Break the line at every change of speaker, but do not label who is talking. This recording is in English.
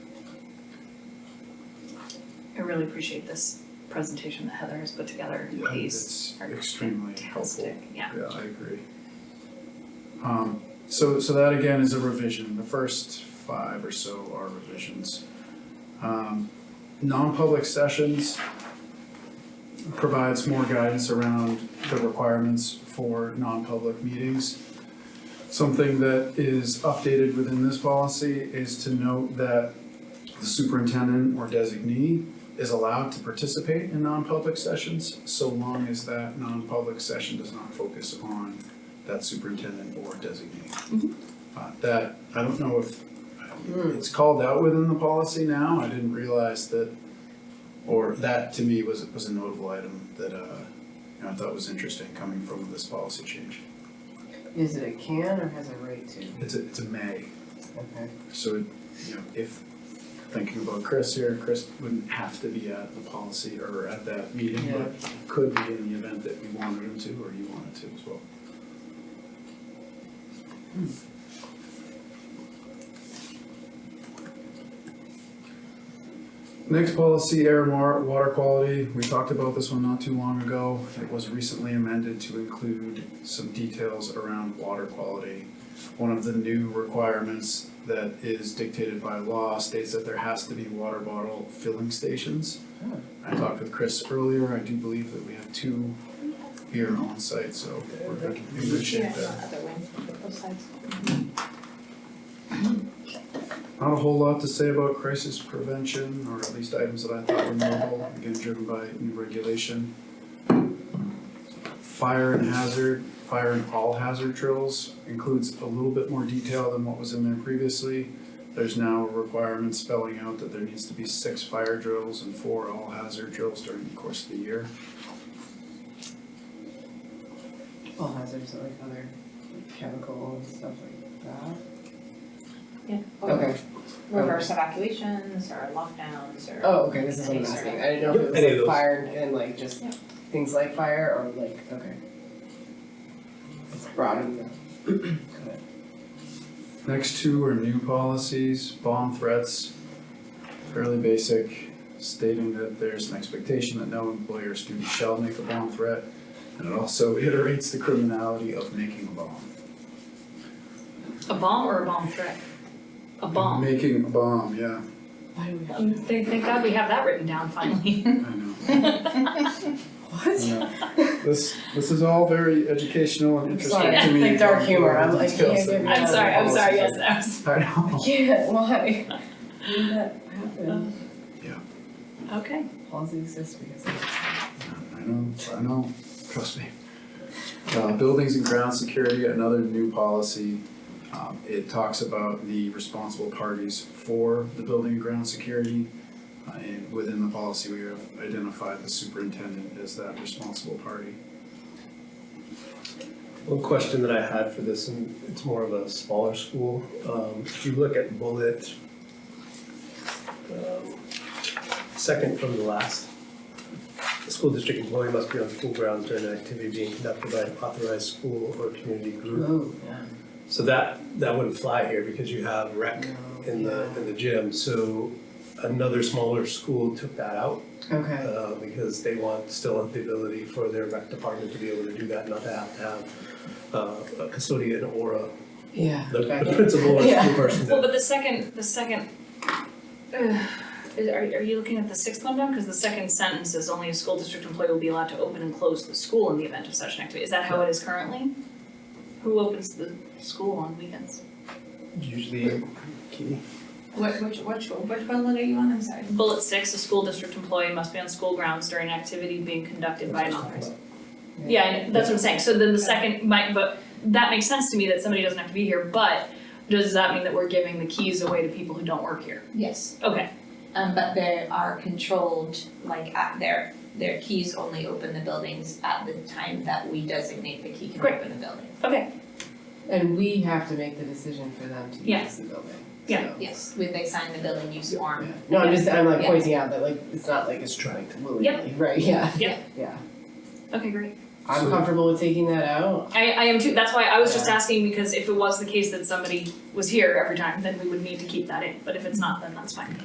I really appreciate this presentation that Heather has put together.
Yeah,
These
it's
are
extremely helpful.
fantastic, yeah.
Yeah, I agree. Um, so, so that again is a revision, the first five or so are revisions. Um, non-public sessions provides more guidance around the requirements for non-public meetings. Something that is updated within this policy is to note that the superintendent or designee is allowed to participate in non-public sessions so long as that non-public session does not focus on that superintendent or designee.
Mhm.
Uh, that, I don't know if, it's called out within the policy now, I didn't realize that, or that to me was, was a notable item that, uh, you know, I thought was interesting coming from this policy change.
Is it a can or has a right to?
It's a, it's a may,
Okay.
so, it- you know, if, thinking about Chris here, Chris wouldn't have to be at the policy or at that meeting, but could be in the event that we wanted him to or you wanted to as well. Next policy, air and wa- water quality. We talked about this one not too long ago. It was recently amended to include some details around water quality. One of the new requirements that is dictated by law states that there has to be water bottle filling stations. I talked with Chris earlier, I do believe that we have two here on site, so we're good- in good shape there.
other way, both sides.
Not a whole lot to say about crisis prevention, or at least items that I thought were notable, again, driven by new regulation. Fire and hazard, fire and all hazard drills includes a little bit more detail than what was in there previously. There's now a requirement spelling out that there needs to be six fire drills and four all hazard drills during the course of the year.
All hazards are like other chemical and stuff like that.
Yeah.
Okay,
Reverse evacuations or lockdowns or.
oh, okay, this is what I'm asking, I didn't know if
Yep,
it
any of
was like
those.
fire and- and like just
Yeah.
things like fire or like, okay. It's broad enough. Got it.
Next two are new policies, bomb threats, fairly basic, stating that there's an expectation that no employee or student shall make a bomb threat. And it also iterates the criminality of making a bomb.
A bomb or a bomb threat? A bomb.
Making a bomb, yeah,
Why do we have?
Um, Thank, thank God we have that written down finally.
I know, I
What?
know. This, this is all very educational and
I'm
interesting
sorry,
to
it's
me.
like dark humor. I'm like,
Details
yeah,
that-
yeah,
I'm sorry, I'm sorry, yes, I was,
I know.
Yeah, why? Why did that happen?
okay.
Policy exists because.
I know, I know, trust me. Uh, buildings and ground security, another new policy. Um, it talks about the responsible parties for the building and ground security. Uh, and within the policy, we have identified the superintendent as that responsible party.
One question that I had for this, and it's more of a smaller school, um, if you look at bullet, um, second from the last, the school district employee must be on school grounds during an activity being conducted by an authorized school or community group.
Oh, yeah.
So that, that wouldn't fly here because you have rec in the, in the gym, so another smaller school took that out.
Okay.
uh, because they want, still have the ability for their rec department to be able to do that, not to have to have uh, a custodian or a,
Yeah.
the
back
the
in.
principal or
Yeah.
school person
Well,
to.
but the second, the second, uh, is- are, are you looking at the sixth one down? Cause the second sentence is only a school district employee will be allowed to open and close the school in the event of such an activity. Is that how it is currently? Who opens the school on weekends?
Usually, Katie?
Which, which, which, which bullet are you on, I'm sorry?
Bullet six, a school district employee must be on school grounds during an activity being conducted by an authorized Yeah, I know- that's what I'm saying, so then the second, my, but that makes sense to me that somebody doesn't have to be here, but does that mean that we're giving the keys away to people who don't work here?
Yes,
Okay,
Um, but they are controlled, like at their, their keys only open the buildings at the time that we designate the key can
Great.
open the building.
okay,
And we have to make the decision for them to
Yeah.
use the building,
Yeah.
so,
Yes, we, they sign the building use form.
yeah. No, I'm just, I'm like
Yeah.
pointing out that like, it's not like it's trying to willingly, right, yeah.
Yep.
Yeah,
okay, great.
I'm
So-
comfortable with taking that out,
I, I am too, that's why I was just asking, because if it was the case that somebody was here every time, then we would need to keep that in, but if it's not, then that's fine.